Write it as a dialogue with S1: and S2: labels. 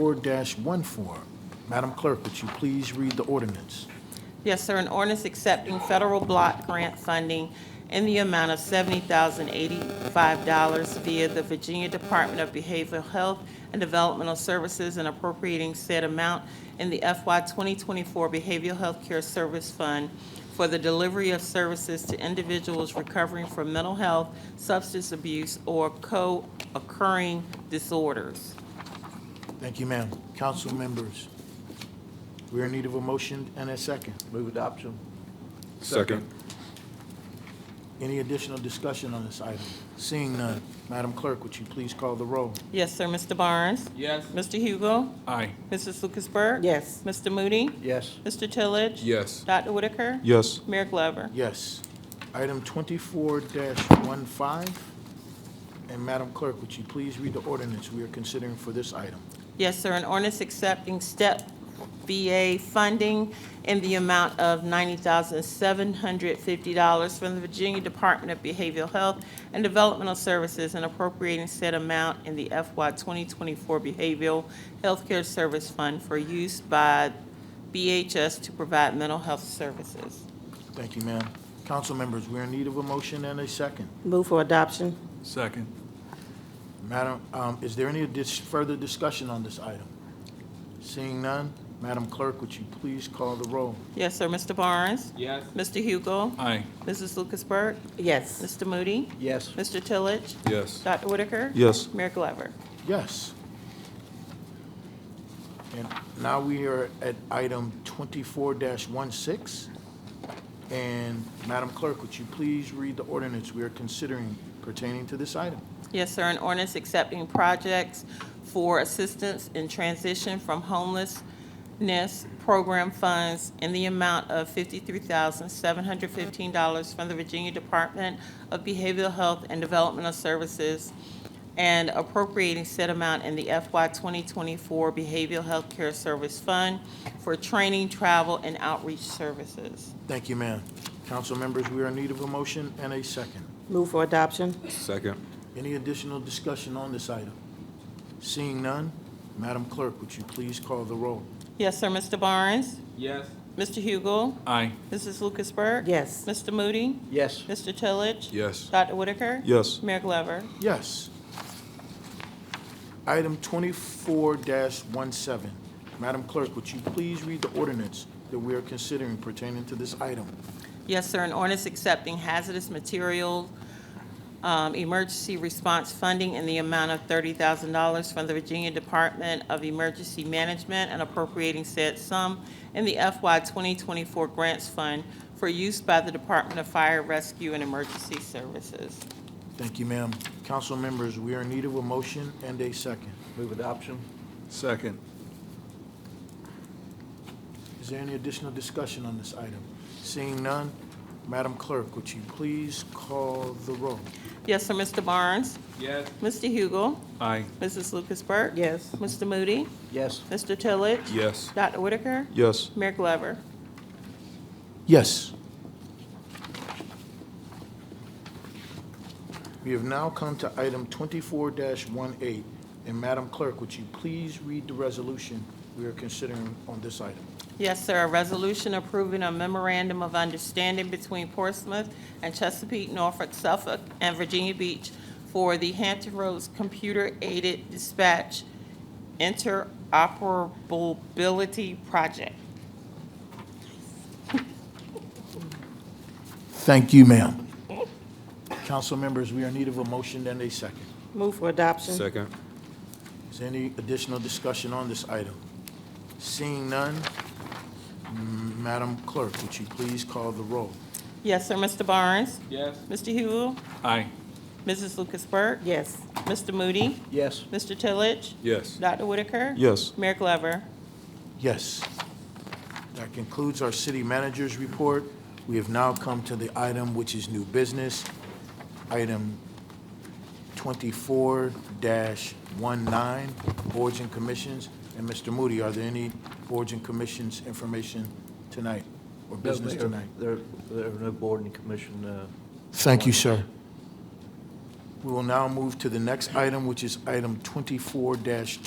S1: 24-1 form. Madam Clerk, would you please read the ordinance?
S2: Yes, sir, an ordinance accepting federal block grant funding in the amount of $70,085 via the Virginia Department of Behavioral Health and Developmental Services and appropriating said amount in the FY 2024 Behavioral Health Care Service Fund for the delivery of services to individuals recovering from mental health, substance abuse, or co-occurring disorders.
S1: Thank you, ma'am. Council members, we are in need of a motion and a second.
S3: Move adoption.
S4: Second.
S1: Any additional discussion on this item? Seeing none, Madam Clerk, would you please call the roll?
S2: Yes, sir, Mr. Barnes?
S3: Yes.
S2: Mr. Hugo?
S4: Aye.
S2: Mrs. Lucasberg?
S5: Yes.
S2: Mr. Moody?
S3: Yes.
S2: Mr. Tillage?
S4: Yes.
S2: Dr. Whitaker?
S4: Yes.
S2: Mayor Glover?
S1: Yes. Item 24-15, and Madam Clerk, would you please read the ordinance we are considering for this item?
S2: Yes, sir. An ordinance accepting step VA funding in the amount of $90,750 from the Virginia Department of Behavioral Health and Developmental Services and appropriating said amount in the FY 2024 Behavioral Healthcare Service Fund for use by BHS to provide mental health services.
S1: Thank you, ma'am. Council members, we are in need of a motion and a second.
S5: Move for adoption.
S4: Second.
S1: Madam, um, is there any dis- further discussion on this item? Seeing none, Madam Clerk, would you please call the roll?
S2: Yes, sir. Mr. Barnes?
S3: Yes.
S2: Mr. Hugo?
S4: Aye.
S2: Mrs. Lucasberg?
S5: Yes.
S2: Mr. Moody?
S3: Yes.
S2: Mr. Tillage?
S4: Yes.
S2: Dr. Whitaker?
S4: Yes.
S2: Mayor Glover?
S1: Yes. And now we are at item twenty-four 16 And Madam Clerk, would you please read the ordinance we are considering pertaining to this item?
S2: Yes, sir, an ordinance accepting projects for assistance in transition from homelessness program funds in the amount of fifty-three thousand, seven hundred fifteen dollars from the Virginia Department of Behavioral Health and Developmental Services and appropriating said amount in the FY twenty twenty-four Behavioral Health Care Service Fund for training, travel, and outreach services.
S1: Thank you, ma'am. Council members, we are in need of a motion and a second.
S5: Move for adoption.
S4: Second.
S1: Any additional discussion on this item? Seeing none, Madam Clerk, would you please call the roll?
S2: Yes, sir, Mr. Barnes?
S3: Yes.
S2: Mr. Hugel?
S4: Aye.
S2: Mrs. Lucasberg?
S5: Yes.
S2: Mr. Moody?
S3: Yes.
S2: Mr. Tillage?
S4: Yes.
S2: Dr. Whitaker?
S4: Yes.
S2: Mayor Glover?
S1: Yes. Item twenty-four 17 Madam Clerk, would you please read the ordinance that we are considering pertaining to this item?
S2: Yes, sir, an ordinance accepting hazardous material um, emergency response funding in the amount of $30,000 from the Virginia Department of Emergency Management and appropriating said sum in the FY 2024 Grants Fund for use by the Department of Fire Rescue and Emergency Services.
S1: Thank you, ma'am. Council members, we are in need of a motion and a second.
S3: Move adoption.
S4: Second.
S1: Is there any additional discussion on this item? Seeing none, Madam Clerk, would you please call the roll?
S2: Yes, sir, Mr. Barnes?
S3: Yes.
S2: Mr. Hugel?
S4: Aye.
S2: Mrs. Lucas Burke?
S5: Yes.
S2: Mr. Moody?
S3: Yes.
S2: Mr. Tillage?
S4: Yes.
S2: Dr. Whitaker?
S4: Yes.
S2: Mayor Glover?
S1: Yes. We have now come to item twenty-four 18 And Madam Clerk, would you please read the resolution we are considering on this item?
S2: Yes, sir. A resolution approving a memorandum of understanding between Portsmouth and Chesapeake, Norfolk, Suffolk, and Virginia Beach for the Hampton Roads Computer Aided Dispatch Interoperability Project.
S1: Thank you, ma'am. Council members, we are in need of a motion and a second.
S5: Move for adoption.
S4: Second.
S1: Is there any additional discussion on this item? Seeing none, mm, Madam Clerk, would you please call the roll?
S2: Yes, sir. Mr. Barnes?
S3: Yes.
S2: Mr. Hewell?
S4: Aye.
S2: Mrs. Lucas Burke?
S5: Yes.
S2: Mr. Moody?
S3: Yes.
S2: Mr. Tillage?
S4: Yes.
S2: Dr. Whitaker?
S4: Yes.
S2: Mayor Glover?
S1: Yes. That concludes our city manager's report. We have now come to the item which is new business, item twenty-four 19 boards and commissions. And Mr. Moody, are there any boards and commissions information tonight or business tonight?
S3: There, there are no board and commission, uh,
S1: Thank you, sir. We will now move to the next item, which is item twenty-four 20